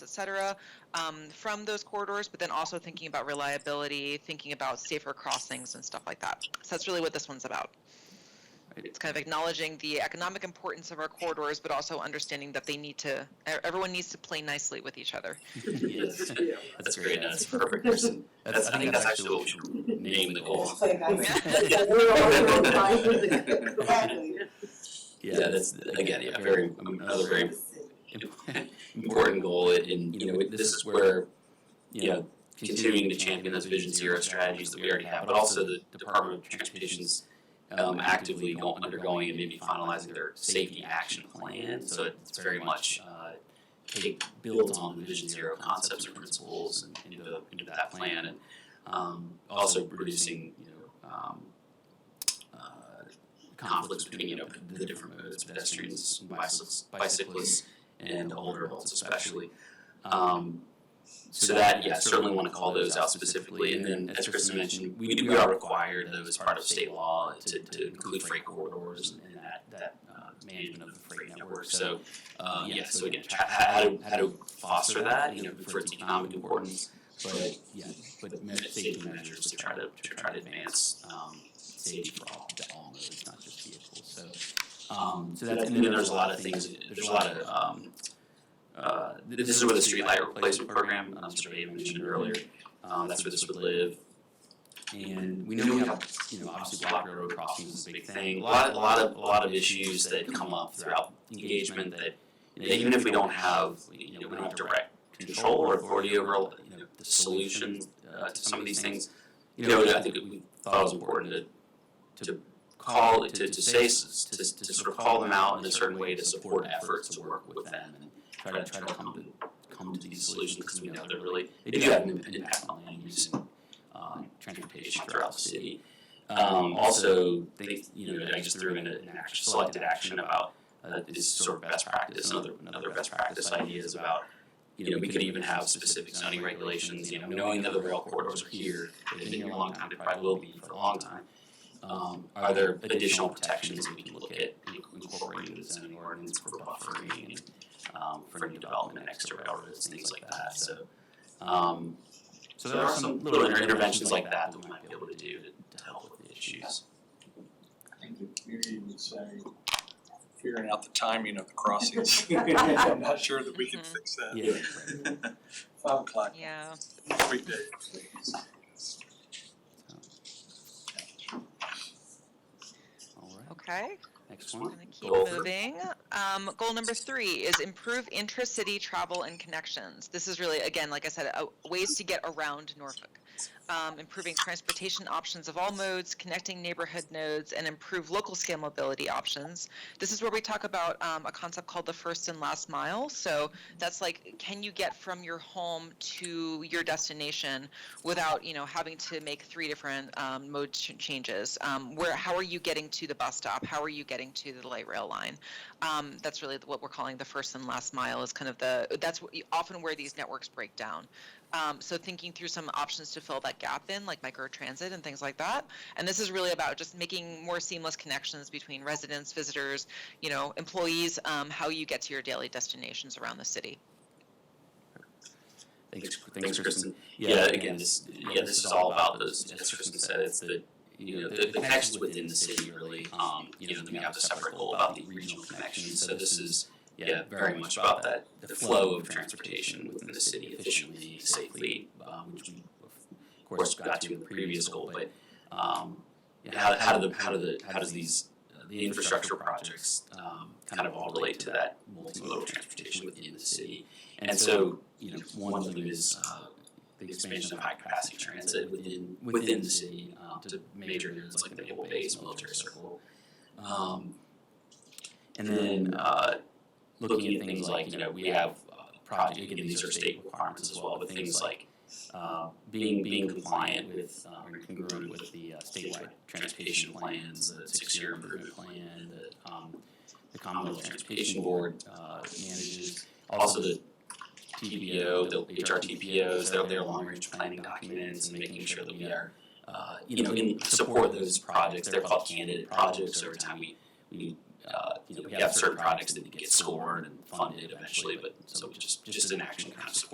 cetera, um, from those corridors, but then also thinking about reliability, thinking about safer crossings and stuff like that. So that's really what this one's about. It's kind of acknowledging the economic importance of our corridors, but also understanding that they need to, e- everyone needs to play nicely with each other. Yes. Yeah. That's great. That's perfect. That's, That's, I think that's actually what we should should name the goal. Exactly. Yeah, that's, again, yeah, very, another very im- important goal. And, and, you know, it- this is where, you know, continuing to champion those Vision Zero strategies that we already have, but also the Department of Transportation's um, actively go- undergoing and maybe finalizing their safety action plan. So it's very much uh, take, builds on the Vision Zero concepts and principles and into, into that plan, and um, also reducing you know um, uh, conflicts between you know the different modes, pedestrians, bicyclists, bicyclists, and older adults especially. Um, so that, yeah, certainly want to call those out specifically. And then, as Kristen mentioned, we, we are required, though, as part of state law, to, to include freight corridors and that, that uh, management of the freight network. So, uh, yeah, so again, tra- how to, how to foster that, you know, for its economic importance, but, yeah, but me- safety measures to try to, to try to advance, um, safety for all, to all modes, not just vehicles, so. Um, so that's, and then there's a lot of things, there's a lot of, um, uh, th- this is where the streetlight replacement program, um, Mr. Bay mentioned earlier, um, that's where this would live. And we know we have, you know, obviously block railroad crossings is a big thing, a lot, a lot of, a lot of issues that come up throughout engagement that you know, even if we don't have, you know, we don't have direct control or authority over, you know, the solution uh, to some of these things, you know, I think we thought it was important to, to call, to, to say, s- to, to sort of call them out in a certain way to support efforts to work with them and try to, try to come to, come to these solutions because we know they're really, they do have an impact on land use and, uh, transportation throughout the city. Um, also, they, you know, I just threw in an action, selected action about uh, is sort of best practice. Another another best practice idea is about you know we could even have specific zoning regulations. You know, knowing that the rail corridors are here, they've been here a long time, they probably will be for a long time. Um, are there additional protections we can look at in- incorporating into the zoning ordinance for buffering and um, for new development, extra railroads, things like that. So. Um, so there are some little inter- interventions like that that we might be able to do to, to help with the issues. I think the community would say, figuring out the timing of the crossings. I'm not sure that we can Mhm. fix that. Yeah. Five o'clock Yeah. every day. All right. Okay. Next one. We're gonna keep Goal. moving. Um, goal number three is improve intra-city travel and connections. This is really, again, like I said, uh, ways to get around Norfolk. Um, improving transportation options of all modes, connecting neighborhood nodes, and improve local scale mobility options. This is where we talk about um, a concept called the first and last mile. So that's like, can you get from your home to your destination without, you know, having to make three different um, mode ch- changes? Um, where, how are you getting to the bus stop? How are you getting to the light rail line? Um, that's really what we're calling the first and last mile. Is kind of the that's wh- often where these networks break down. Um, so thinking through some options to fill that gap in, like microtransit and things like that. And this is really about just making more seamless connections between residents, visitors, you know, employees, um, how you get to your daily destinations around the city. Thanks, thanks, Kristen. Yeah, again, this, yeah, this is all about those, as Kristen said, it's the, you know, the, the connections within the city really, um, you know, then we have a separate goal about the regional connections, so this is, yeah, very much about that, the flow of transportation within the city efficiently, safely, um, which we, of course, got to in the previous goal, but, um, yeah, how, how do the, how do the, how does these, uh, the infrastructure projects, um, kind of all relate to that multimodal transportation within the city? And so, you know, one of them is, uh, the expansion of high-capacity transit within, within the city, um, to major areas like the Naval Base, Military Circle. Um, and then, uh, looking at things like, you know, we have, uh, project, again, these are state requirements as well, but things like, uh, being, being compliant with, uh, or congruent with the uh, statewide transportation plans, the six-year improvement plan, that, um, the Commonwealth Transportation Board, uh, manages, also the TPO, the HRTPOs, their, their long-range planning documents, and making sure that we are, uh, you know, in support of those projects. They're called candidate projects. Every time we, we uh, you know, we have certain projects that get scored and funded eventually, but so just, just an action kind of support